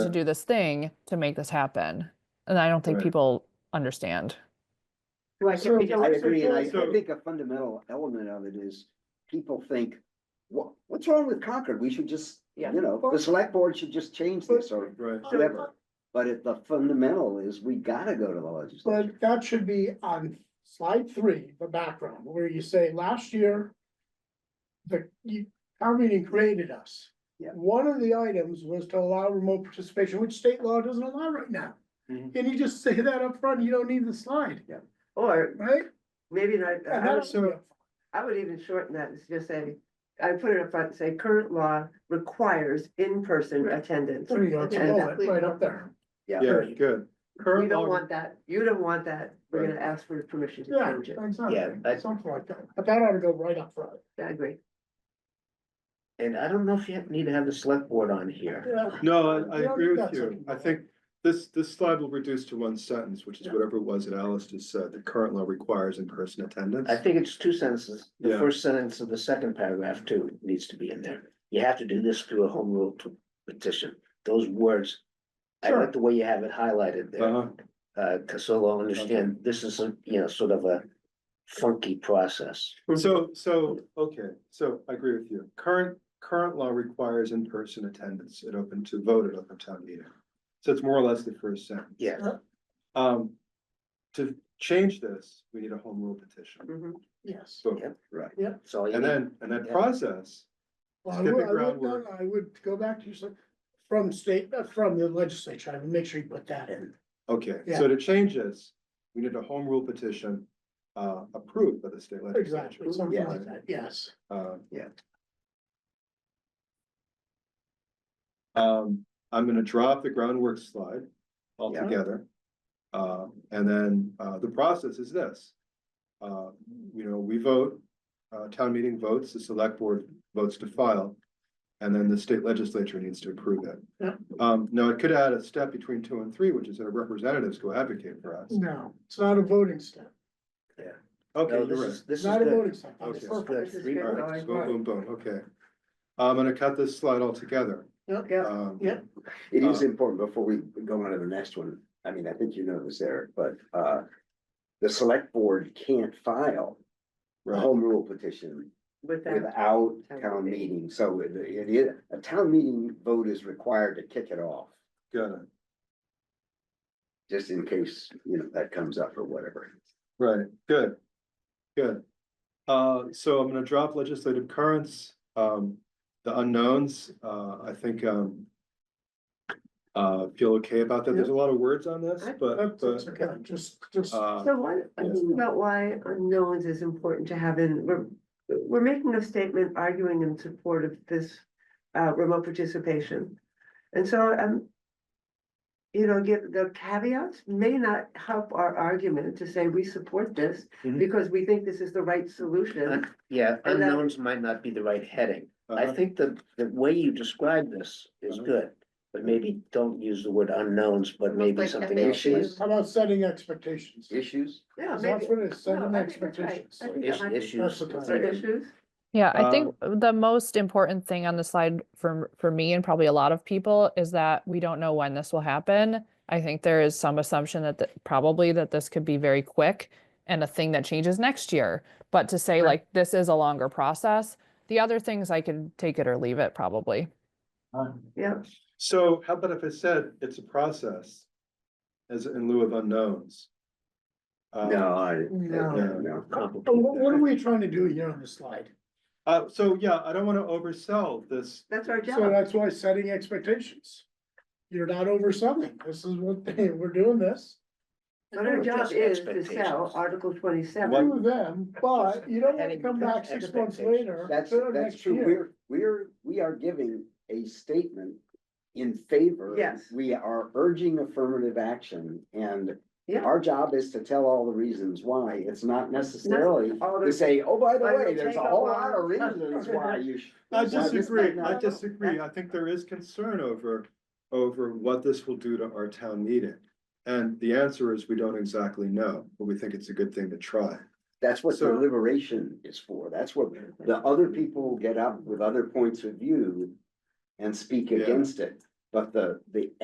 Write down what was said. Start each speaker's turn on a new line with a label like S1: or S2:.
S1: to do this thing to make this happen. And I don't think
S2: Right.
S1: people understand.
S3: Well, I
S4: So-
S3: think-
S4: I agree, and I,
S2: So-
S4: I think a fundamental element of it is people think, what, what's wrong with Concord? We should just,
S3: Yeah.
S4: you know, the select board should just change this or
S2: Right.
S4: whatever. But it, the fundamental is we gotta go to the legislature.
S3: But that should be on slide three, the background, where you say last year. The, you, town meeting created us.
S4: Yeah.
S3: One of the items was to allow remote participation, which state law doesn't allow right now.
S2: Mhm.
S3: And you just say that up front. you don't need the slide,
S5: Or
S3: right?
S5: maybe not,
S3: And
S5: I would,
S3: that's- yeah.
S5: I would even shorten that, it's just say, I put it up front, say current law requires in-person attendance.
S3: There you go, it's
S5: And
S3: all
S5: that-
S3: it, right up there.
S2: Yeah, good.
S5: You
S2: Current
S5: don't
S2: law,
S5: want that, you don't want that, we're gonna
S2: Right.
S5: ask for permission to
S3: Yeah,
S5: change it,
S4: Yeah,
S3: exactly,
S6: I-
S3: something like that, but that ought to go right up front.
S5: I agree.
S6: And I don't know if you have- need to have the select board on here.
S3: Yeah.
S2: no, I, I
S3: Yeah,
S2: agree with
S3: that's
S2: you.
S3: okay.
S2: I think this, this slide will reduce to one sentence, which is
S3: Yeah.
S2: whatever it was that Alice just said, the current law requires in-person attendance.
S6: I think it's two sentences. The
S2: Yeah.
S6: first sentence of the second paragraph too needs to be in there. You have to do this through a home rule p- petition. Those words. I
S3: Sure.
S6: like the way you have it highlighted there,
S2: Uh-huh.
S6: uh, cause so I'll understand, this is a, you know, sort of a funky process.
S2: So, so, okay, so I agree with you. Current, current law requires in-person attendance at open to vote at open town meeting. So it's more or less the first sentence.
S6: Yeah.
S2: Um, to change this, we need a home rule petition.
S5: Mhm.
S3: Yes.
S2: So,
S6: Yeah.
S4: Right.
S6: So you
S2: and
S6: need,
S2: then, and that
S6: Yeah.
S2: process,
S3: Well, I
S2: Let's get
S3: would,
S2: the
S3: I would,
S2: groundwork.
S3: no, I would go back to your, sli- from state, uh, from the legislature, I would make sure you put that in.
S2: okay, so to change this, we need a home rule petition uh approved by the state legislature.
S3: Exactly, something
S4: Yeah.
S3: like that, yes.
S2: Uh,
S4: Yeah.
S2: Um, I'm gonna drop the groundwork slide
S4: Yeah.
S2: altogether. Uh, and then, uh, the process is this. Uh, you know, we vote, uh, town meeting votes, the select board votes to file. And then the state legislature needs to approve it.
S3: Yeah.
S2: Um, now it could add a step between two and three, which is that our representatives go advocate for us.
S3: No, it's not a voting step,
S2: Okay,
S6: no,
S2: you're
S6: this
S2: right.
S6: is, this is
S3: It's not a
S6: good.
S3: voting step.
S2: Okay.
S3: It's
S2: This is
S3: perfect.
S5: This is
S6: Three
S5: good,
S2: All
S6: parts.
S5: going.
S2: right, boom, boom, boom, okay. I'm gonna cut this slide altogether.
S5: Yeah.
S2: Um,
S3: Yeah.
S4: It is
S6: Uh-huh.
S2: Uh,
S4: important before we go on to the next one. I mean, I think you know this, Eric, but, uh, the select board can't file a
S2: Right,
S4: home rule petition
S5: With that,
S4: without
S5: Town
S4: town
S5: meeting.
S4: meeting. So it it is, a town meeting vote is required to kick it off.
S2: got it,
S4: just in case, you know, that comes up or whatever.
S2: right, good, good. Uh, so I'm gonna drop legislative currents, um, the unknowns, uh, I think, um. Uh, feel okay about that, there's a lot of words on this, but,
S3: That's,
S2: but,
S3: that's okay, just, just,
S2: uh,
S5: so what, I
S2: Yes.
S5: think about why unknowns is important to have in, we're, we're making a statement arguing in support of this. Uh, remote participation, and so, um. You know, get the caveats may not help our argument to say we support this.
S2: Mhm.
S5: Because we think this is the right solution,
S6: Yeah,
S5: And then-
S6: unknowns might not be the right heading. I
S4: Uh-huh.
S2: uh,
S6: think the, the way you describe this is
S2: Uh-huh.
S6: good, but maybe don't use the word unknowns, but maybe
S5: like
S6: something else.
S5: FAQs.
S6: is-
S3: how about setting expectations?
S4: Issues?
S5: yeah,
S3: That's
S5: maybe.
S3: what it is,
S5: No,
S3: setting
S5: I think that's right.
S3: expectations.
S5: I think
S6: is-
S5: that might be-
S6: Issues.
S3: That's what
S5: Are there Issues?
S1: Yeah, I think the most important thing on the slide for for me and probably a lot of people is that we don't know when this will happen. I think there is some assumption that th- probably that this could be very quick and a thing that changes next year. But to say
S5: Right.
S1: like this is a longer process, the other things I could take it or leave it probably.
S5: Yeah.
S2: so how about if I said it's a process? As in lieu of unknowns? Uh,
S4: No, I, no,
S3: No.
S4: no.
S3: But what, what are
S6: complicated.
S3: we trying to do here on this slide?
S2: Uh, so, yeah, I don't wanna oversell this,
S5: That's our
S3: So
S5: job.
S3: that's why setting expectations. You're not overselling, this is what, they- we're doing this.
S5: But our job
S6: Just
S5: is to sell
S6: expectations.
S5: Article
S3: Agree
S5: twenty-seven.
S3: with them, but you don't wanna
S6: Having
S3: come back six months later.
S4: That's,
S3: or
S4: that's
S3: next
S4: true.
S3: year.
S4: We're, we're, we are giving a statement in favor.
S5: Yes.
S4: We are urging affirmative action and
S5: Yeah.
S4: our job is to tell all the reasons why. It's not necessarily
S5: All
S4: to
S5: the-
S4: say, oh, by the
S5: I will
S4: way, there's
S5: take
S4: a
S5: a
S4: whole
S5: lot
S4: lot of
S5: of-
S4: reasons why you should.
S2: I
S4: why this might
S2: disagree,
S4: not
S2: I
S5: no.
S2: disagree, I think there is concern over, over what this will do to our town meeting. And the answer is we don't exactly know, but we think it's a good thing to try.
S4: That's what
S2: So-
S4: deliberation is for. That's what the other people get up with other points of view and speak
S2: Yeah.
S4: against it. But the, the